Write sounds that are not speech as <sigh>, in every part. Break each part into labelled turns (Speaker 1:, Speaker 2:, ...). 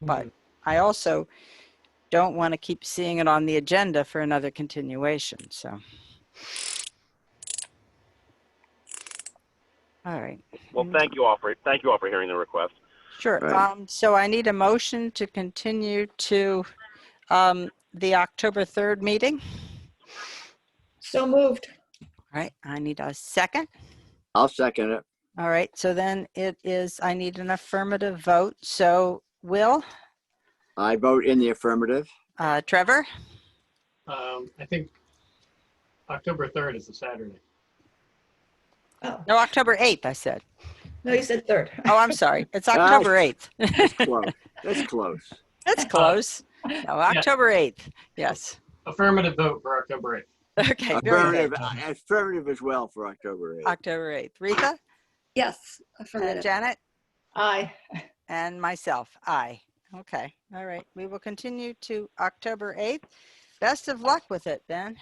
Speaker 1: But I also don't want to keep seeing it on the agenda for another continuation, so. All right,
Speaker 2: Well, thank you all for, thank you all for hearing the request.
Speaker 1: sure.
Speaker 3: Right.
Speaker 1: Um, so I need a motion to continue to, um, the October 3rd meeting.
Speaker 4: So moved.
Speaker 1: All right, I need a second.
Speaker 3: I'll second it.
Speaker 1: All right, so then it is, I need an affirmative vote. So Will,
Speaker 3: I vote in the affirmative.
Speaker 1: uh, Trevor,
Speaker 5: Um, I think October 3rd is a Saturday.
Speaker 4: Oh,
Speaker 1: no, October 8th, I said.
Speaker 4: no, you said third.
Speaker 1: Oh, I'm sorry. It's October 8th.
Speaker 3: Close. That's
Speaker 1: <laughs>
Speaker 3: close.
Speaker 1: That's close. No, October 8th. Yes. <laughs>
Speaker 5: Affirmative vote for October 8th.
Speaker 1: Okay, very good.
Speaker 3: Affirmative, affirmative as well for October 8th.
Speaker 1: October 8th. Rita,
Speaker 6: Yes,
Speaker 1: uh,
Speaker 6: affirmative.
Speaker 1: Janet,
Speaker 4: Aye.
Speaker 1: and myself. Aye. Okay, all right. We will continue to October 8th. Best of luck with it, Ben.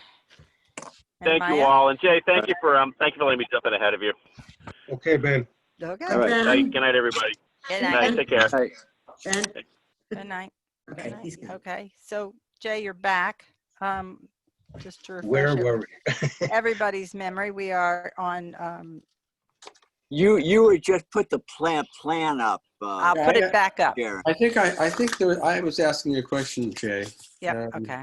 Speaker 1: And
Speaker 2: Thank you
Speaker 1: Maya?
Speaker 2: all, and Jay, thank you for, um, thank you for letting me jump in ahead of you.
Speaker 7: Okay, Ben.
Speaker 3: All
Speaker 1: Okay.
Speaker 3: right.
Speaker 2: Good night, good night, everybody.
Speaker 1: Good
Speaker 2: Good
Speaker 1: night.
Speaker 2: night, take care.
Speaker 3: Hey,
Speaker 6: Ben?
Speaker 1: Good night. Good
Speaker 6: Okay,
Speaker 1: night.
Speaker 6: he's gone.
Speaker 1: Okay, so Jay, you're back. Um, Just to
Speaker 7: Where
Speaker 1: refresh
Speaker 7: were we?
Speaker 1: everybody's memory, we are on, um,
Speaker 3: You, you would just put the plan, plan up, uh,
Speaker 1: I'll put it back up.
Speaker 3: Sharon.
Speaker 7: I think I, I think there, I was asking you a question, Jay.
Speaker 1: Yep,
Speaker 7: Um,
Speaker 1: okay.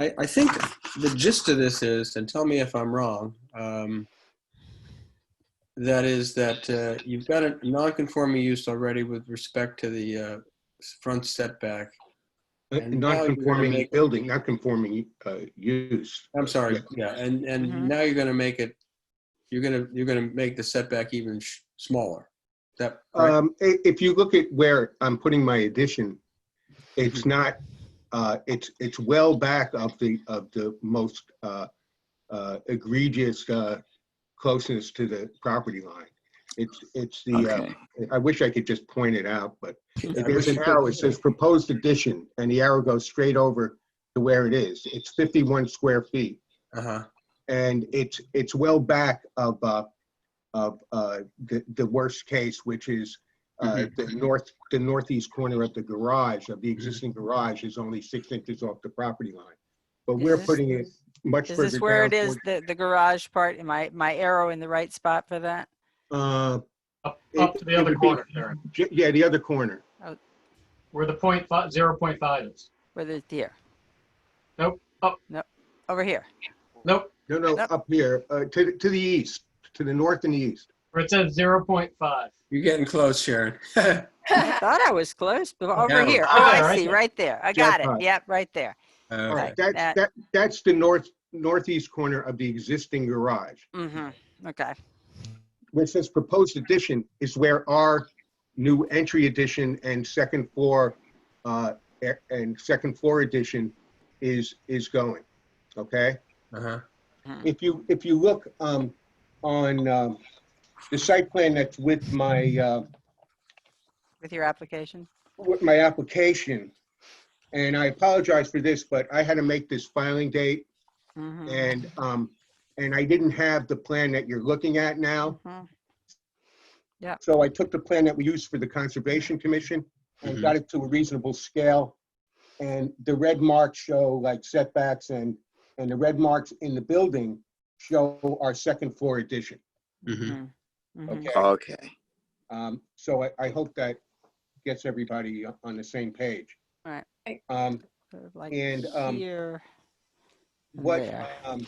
Speaker 7: I, I think the gist of this is, and tell me if I'm wrong, um, that is that uh, you've got a non-conforming use already with respect to the uh, front setback.
Speaker 8: Uh,
Speaker 7: And now you're gonna
Speaker 8: Non-conforming
Speaker 7: make-
Speaker 8: building, not conforming uh, use.
Speaker 7: I'm sorry, yeah, and,
Speaker 1: Mhm.
Speaker 7: and now you're gonna make it, you're gonna, you're gonna make the setback even sh- smaller. Is That, right?
Speaker 8: Um, i- If you look at where I'm putting my addition, it's
Speaker 7: Mm-hmm.
Speaker 8: not, uh, it's, it's well back of the, of the most uh, uh, egregious uh, closeness to the property line. It's, it's the, uh,
Speaker 3: Okay.
Speaker 8: I wish I could just point it out, but
Speaker 7: Uh, I wish
Speaker 8: there's an
Speaker 7: you could-
Speaker 8: arrow, it says proposed addition, and the arrow goes straight over to where it is. It's 51 square feet.
Speaker 7: Uh-huh,
Speaker 8: and it's it's well back of uh, of uh, the the worst case, which is uh,
Speaker 5: Mm-hmm,
Speaker 8: the north the northeast corner of the garage of the existing garage is only six inches off the property line, but
Speaker 1: Is
Speaker 8: we're
Speaker 1: this-
Speaker 8: putting it much
Speaker 1: Is
Speaker 8: further
Speaker 1: this where it
Speaker 8: down
Speaker 1: is, the, the garage part? Am I, my arrow in the right spot for that?
Speaker 8: toward- uh,
Speaker 5: Up,
Speaker 8: It-
Speaker 5: up to the
Speaker 8: it
Speaker 5: other
Speaker 8: would be-
Speaker 5: corner, Karen,
Speaker 8: j- yeah, the other corner.
Speaker 5: where the point five, 0.5 is.
Speaker 1: Where the deer?
Speaker 5: Nope,
Speaker 8: Oh.
Speaker 5: up.
Speaker 1: Nope, over here.
Speaker 5: Nope,
Speaker 8: No, no,
Speaker 1: Yep.
Speaker 8: up here uh, to the- to the east, to the north and the east.
Speaker 5: where it says 0.5.
Speaker 7: you're getting close, Sharon. <laughs>
Speaker 1: I thought I was close, but over
Speaker 7: Yeah.
Speaker 1: here. Oh,
Speaker 5: Yeah,
Speaker 1: I
Speaker 5: right
Speaker 1: see,
Speaker 5: there.
Speaker 1: right there. I got it.
Speaker 8: Jackpot.
Speaker 1: Yep, right there.
Speaker 7: Uh,
Speaker 1: Right.
Speaker 8: That,
Speaker 1: that-
Speaker 8: that that's the north northeast corner of the existing garage.
Speaker 1: hmm okay.
Speaker 8: which says proposed addition is where our new entry addition and second floor, uh, a- and second floor addition is, is going, okay?
Speaker 7: Uh-huh.
Speaker 8: If you, if you look, um, on, um, the site plan that's with my, uh,
Speaker 1: With your application?
Speaker 8: with my application, and I apologize for this, but I had to make this filing date,
Speaker 1: Mhm,
Speaker 8: and, um, and I didn't have the plan that you're looking at now.
Speaker 1: mhm.
Speaker 8: So I took the plan that we used for the Conservation Commission and
Speaker 7: Mhm.
Speaker 8: got it to a reasonable scale. And the red marks show like setbacks and, and the red marks in the building show our second floor addition,
Speaker 7: Mhm.
Speaker 1: Mhm.
Speaker 8: mm-hmm. okay?
Speaker 3: Okay.
Speaker 8: Um, So I, I hope that gets everybody on the same page.
Speaker 1: Right.
Speaker 8: Um,
Speaker 1: Sort of Like
Speaker 8: And, um,
Speaker 1: here. and
Speaker 8: What,
Speaker 1: there.
Speaker 8: um,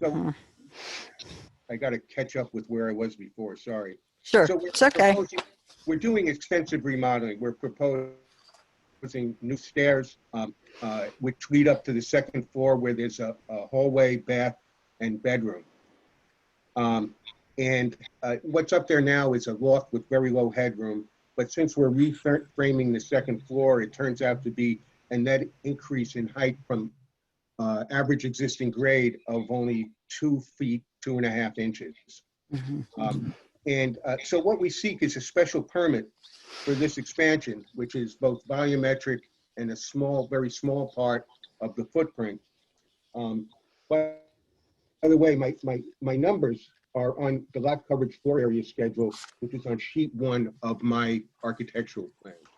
Speaker 8: so
Speaker 1: Mhm.
Speaker 8: I gotta catch up with where I was before, sorry.
Speaker 1: Sure,
Speaker 8: So we're
Speaker 1: it's okay.
Speaker 8: proposing- We're doing extensive remodeling. We're proposing new stairs, um, uh, which lead up to the second floor where there's a a hallway, bath, and bedroom. Um, And uh, what's up there now is a loft with very low headroom, but since we're reframing the second floor, it turns out to be a net increase in height from uh, average existing grade of only two feet, two and a half inches.
Speaker 1: Mhm.
Speaker 8: Um, And uh, so what we seek is a special permit for this expansion, which is both volumetric and a small, very small part of the footprint. Um, But, by the way, my, my, my numbers are on the lot coverage floor area schedule, which is on sheet one of my architectural plan.